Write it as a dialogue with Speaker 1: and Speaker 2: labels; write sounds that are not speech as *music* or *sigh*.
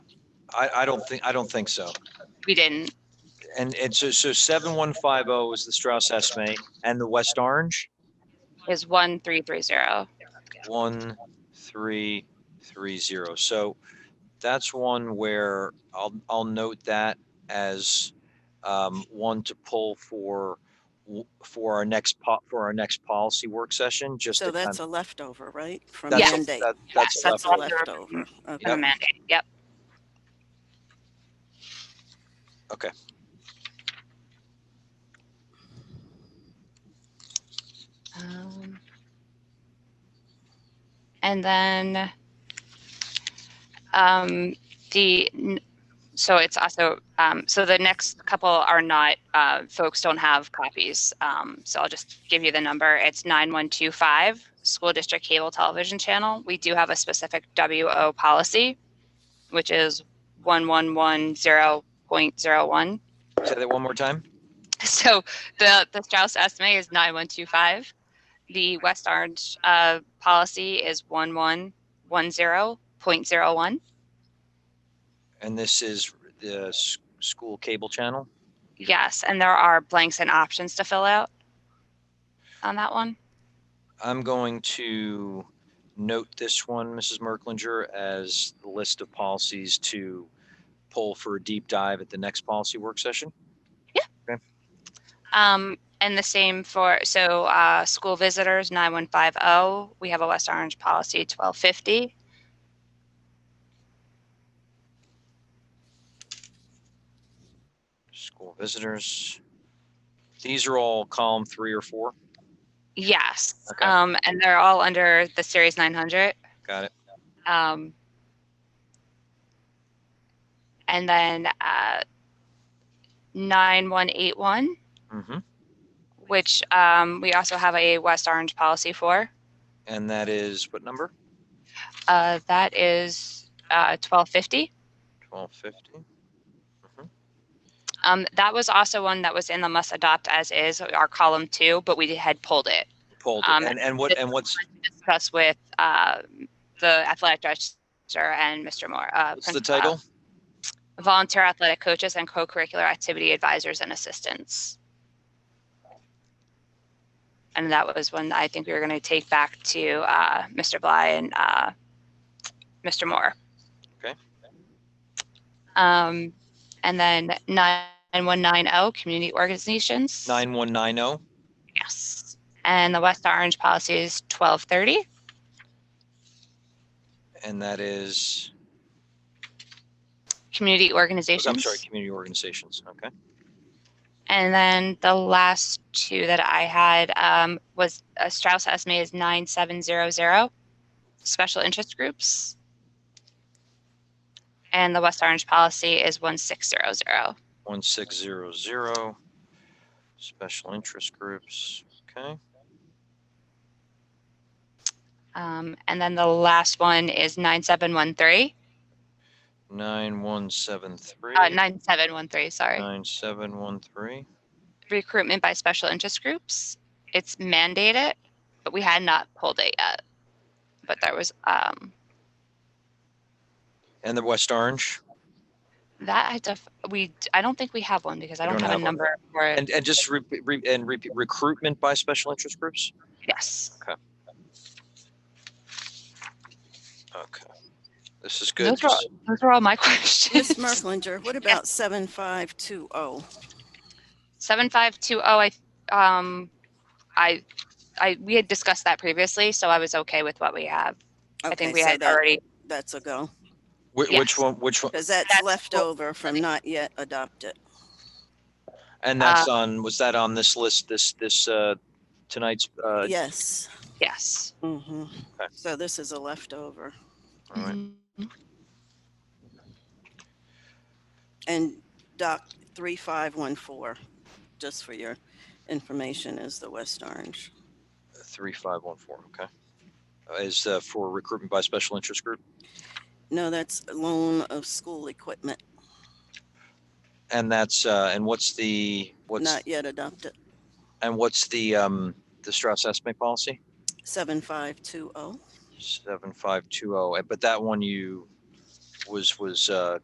Speaker 1: I, I don't think, I don't think so.
Speaker 2: We didn't.
Speaker 1: And, and so, so 7150 is the Strauss Esme and the West Orange,
Speaker 2: Is one three three zero.
Speaker 1: 1330. So that's one where I'll, I'll note that as um, one to pull for, for our next, po- for our next policy work session, just.
Speaker 3: So
Speaker 1: to kind
Speaker 3: that's
Speaker 1: of-
Speaker 3: a leftover, right? From
Speaker 1: that's-
Speaker 3: Monday?
Speaker 1: that-
Speaker 2: Yes,
Speaker 1: That's
Speaker 2: that's
Speaker 3: That's a
Speaker 1: left.
Speaker 2: all. leftover.
Speaker 3: leftover.
Speaker 2: From
Speaker 3: Okay.
Speaker 2: Monday. Yep.
Speaker 1: Okay.
Speaker 2: Um, and then um, the n- so it's also um, so the next couple are not uh, folks don't have copies. Um, so I'll just give you the number. It's nine one two five school district cable television channel. We do have a specific WO policy, which is one one one zero point zero one. *laughs*
Speaker 1: Say that one more time.
Speaker 2: So the, the Strauss estimate is 9125. The West Orange uh, policy is 1110.01.
Speaker 1: And this is the s- school cable channel.
Speaker 2: Yes, and there are blanks and options to fill out on that one.
Speaker 1: I'm going to note this one, Mrs. Merklinger, as the list of policies to pull for a deep dive at the next policy work session.
Speaker 2: Um, and the same for, so uh, school visitors, 9150. oh, We have a West Orange policy, 1250.
Speaker 1: School visitors. These are all column three or four.
Speaker 2: Yes.
Speaker 1: Okay.
Speaker 2: Um, and they're all under the Series 900.
Speaker 1: Got it.
Speaker 2: Um, and then uh, 9181,
Speaker 1: hmm
Speaker 2: which um, we also have a West Orange policy for.
Speaker 1: And that is what number?
Speaker 2: Uh, that is uh, 1250.
Speaker 1: 1250.
Speaker 2: Um, that was also one that was in the must adopt as is, our column two, but we had pulled it.
Speaker 1: Pulled.
Speaker 2: Um,
Speaker 1: it. And, and what, and what's,
Speaker 2: Discuss with uh, the athletic director and Mr. Moore. Uh,
Speaker 1: what's the
Speaker 2: principal-
Speaker 1: title?
Speaker 2: Volunteer athletic coaches and co-curricular activity advisors and assistants. And that was one that I think we were going to take back to uh, Mr. Bly and uh, Mr. Moore.
Speaker 1: Okay.
Speaker 2: Um, and then 9190, oh, community organizations.
Speaker 1: 9190.
Speaker 2: Yes. And the West Orange policy is 1230.
Speaker 1: And that is,
Speaker 2: Community organizations.
Speaker 1: Oh, I'm sorry, community organizations. Okay.
Speaker 2: And then the last two that I had um, was uh, Strauss Esme is 9700, special interest groups. And the West Orange policy is 1600.
Speaker 1: 1600, special interest groups, okay?
Speaker 2: Um, and then the last one is 9713, uh,
Speaker 1: 9173,
Speaker 2: 9713, sorry.
Speaker 1: 9713,
Speaker 2: Recruitment by special interest groups. It's mandated, but we had not pulled it yet. But there was, um,
Speaker 1: and the West Orange.
Speaker 2: that I def, we, I don't think we have one because I
Speaker 1: You
Speaker 2: don't
Speaker 1: don't
Speaker 2: have a
Speaker 1: have one.
Speaker 2: number for it.
Speaker 1: And, and just re, re- and repeat recruitment by special interest groups?
Speaker 2: Yes.
Speaker 1: Okay. This is good.
Speaker 2: Those are, those are all my *laughs*
Speaker 3: Ms.
Speaker 2: questions.
Speaker 3: Merklinger, what about 7520?
Speaker 2: Seven five two oh, I, um, I, I, we had discussed that previously, so I was okay with what we have. I
Speaker 3: Okay,
Speaker 2: think we
Speaker 3: so
Speaker 2: had
Speaker 3: that-
Speaker 2: already,
Speaker 3: That's a go,
Speaker 1: Wh- Which
Speaker 2: yes.
Speaker 1: one, which one,
Speaker 3: because that's
Speaker 2: That's
Speaker 3: left
Speaker 2: what-
Speaker 3: over from not yet adopted.
Speaker 1: and that's
Speaker 2: Uh,
Speaker 1: on, was that on this list, this, this, uh, tonight's, uh,
Speaker 3: Yes.
Speaker 2: yes.
Speaker 3: Mhm.
Speaker 1: Okay.
Speaker 3: So this is a leftover.
Speaker 1: all
Speaker 2: Mm-hmm.
Speaker 1: right.
Speaker 3: And Doc 3514, just for your information, is the West Orange.
Speaker 1: 3514, okay? Uh, Is, uh, for recruitment by special interest group?
Speaker 3: No, that's loan of school equipment,
Speaker 1: And that's, uh, and what's the, what's,
Speaker 3: not yet adopted.
Speaker 1: And what's the, um, the Strauss estimate policy?
Speaker 3: 7520.
Speaker 1: oh, Seven, five, two, oh, but that one you was, was, uh,